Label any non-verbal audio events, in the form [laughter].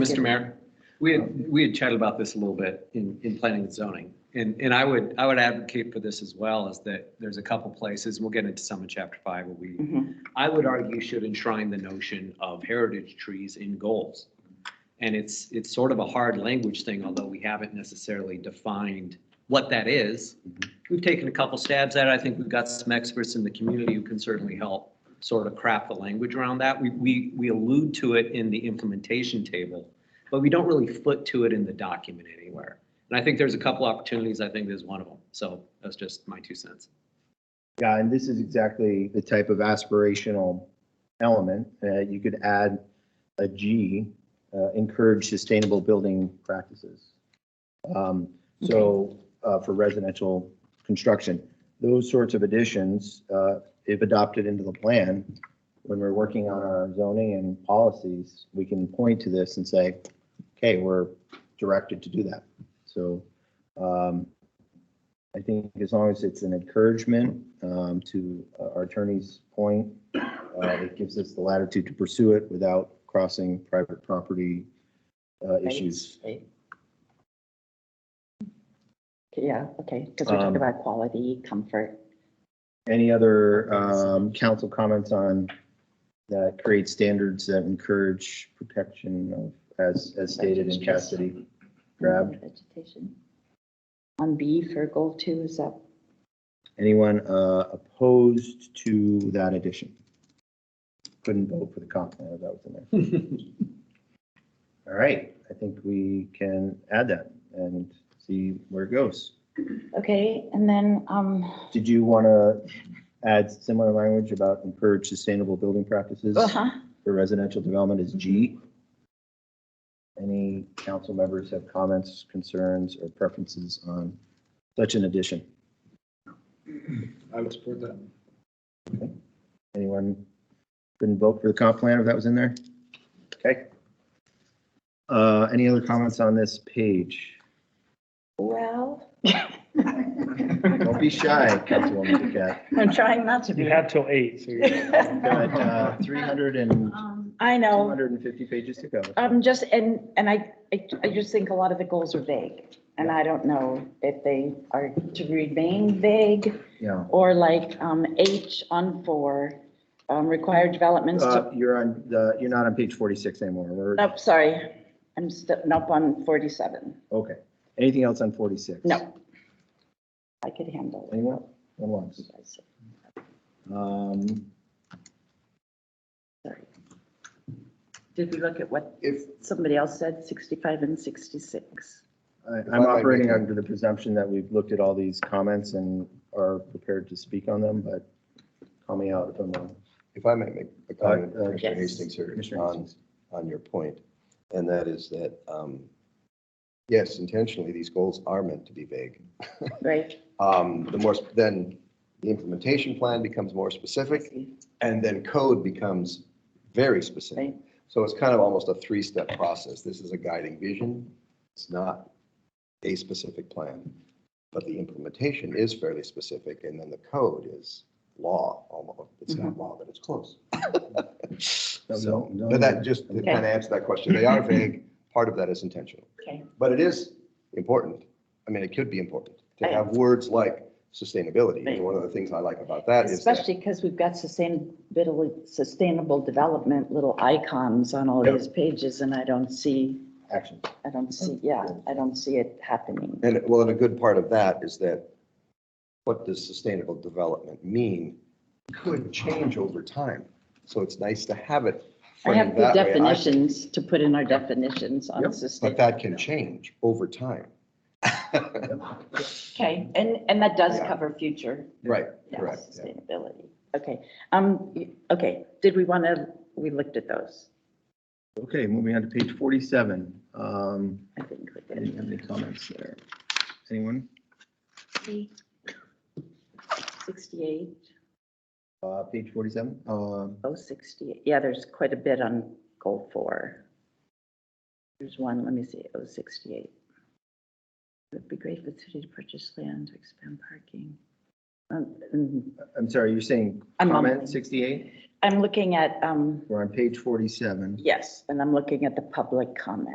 Mr. Mayor, we had, we had chatted about this a little bit in, in planning and zoning. And, and I would, I would advocate for this as well, is that there's a couple places, we'll get into some in chapter five, where we, Mhm. I would argue should enshrine the notion of heritage trees in goals. And it's, it's sort of a hard language thing, although we haven't necessarily defined what that is. We've taken a couple stabs at it. I think we've got some experts in the community who can certainly help sort of craft the language around that. We, we, we allude to it in the implementation table, but we don't really foot to it in the document anywhere. And I think there's a couple opportunities. I think there's one of them. So that's just my two cents. [laughs] Yeah, and this is exactly the type of aspirational element. Uh, you could add a G, uh, encourage sustainable building practices. Um, so, uh, for residential construction, those sorts of additions, uh, if adopted into the plan, when we're working on our zoning and policies, we can point to this and say, okay, we're directed to do that. So, um, I think as long as it's an encouragement um, to uh, our attorney's point, uh, it gives us the latitude to pursue it without crossing private property uh, issues. Right. Yeah, okay, because we're talking Um, about quality, comfort. Any other um, council comments on that create standards that encourage protection of, as, as stated in Cassidy grabbed? Vegetation. On B for goal two is up. Anyone uh, opposed to that addition? Couldn't vote for the comp plan if that was in there. All right, I think we can add that and see where it goes. Okay, and then, um, Did you want to add similar language about encourage sustainable building practices uh-huh, for residential development as G? Any council members have comments, concerns, or preferences on such an addition? I would support that. Anyone couldn't vote for the comp plan if that was in there? Okay. Uh, Any other comments on this page? well. Don't be shy, Councilwoman Duquette. [laughs] I'm trying not to You be. had till eight, so you're. Got uh, 300 and [laughs] I know. 250 pages to go. Um, just, and, and I, I I just think a lot of the goals are vague, and I don't know if they are to remain vague Yeah. or like, um, H on four, um, required developments Uh, to, You're on, the. you're not on page 46 anymore. We're, nope, Oh, sorry, I'm stepping up on forty-seven, okay. Anything else on 46? no. I could handle it. Anyone? One once. Um, Sorry. Did we look at what If, somebody else said, sixty-five and sixty-six? I- If I I'm might operating make a- under the presumption that we've looked at all these comments and are prepared to speak on them, but call me out if I'm wrong. if I may make a Uh, comment, uh, Commissioner Yes. Hastings here, Commissioner on, Hastings. on your point, and that is that, um, yes, intentionally, these goals are meant to be vague. Right? Um, the more, sp- then the implementation plan becomes more specific, and then code becomes very specific. Right. So it's kind of almost a three-step process. This is a guiding vision. It's not a specific plan. But the implementation is fairly specific, and then the code is law, almost. It's not law, but it's [laughs] close. So, Mm-hmm. No, no, but that just, to Okay. kind of answer that question, they [laughs] are vague. Part of that is intentional. Okay, But it is important. I mean, it could be important to Right. have words like sustainability. Right. And one of the things I like about that is that especially because we've got sustainability, sustainable development, little icons on all Yep. these pages, and I don't see, Action. I don't see, yeah, I don't see it happening. And well, and a good part of that is that what does sustainable development mean could change over time. So it's nice to have it. I have framed the that way. I- definitions to put in our definitions on Yep. But sustainable. that can change over time. [laughs] Okay, and, and that does Yeah. cover future Right, yeah, correct. yeah. sustainability. Okay, um, y- okay, did we want to, we looked at those, Okay, moving on to page 47. Um, I think we I didn't did. have any comments there. Anyone? Sixty-eight, Uh, Page 47? Um, oh, sixty, yeah, there's quite a bit on goal four. There's one, let me see, oh, sixty-eight. It'd be great for the city to purchase land to expand parking. Um, mm, I'm sorry, you're saying I'm on- comment 68? I'm looking at, um, We're on page 47. yes, and I'm looking at the public comment.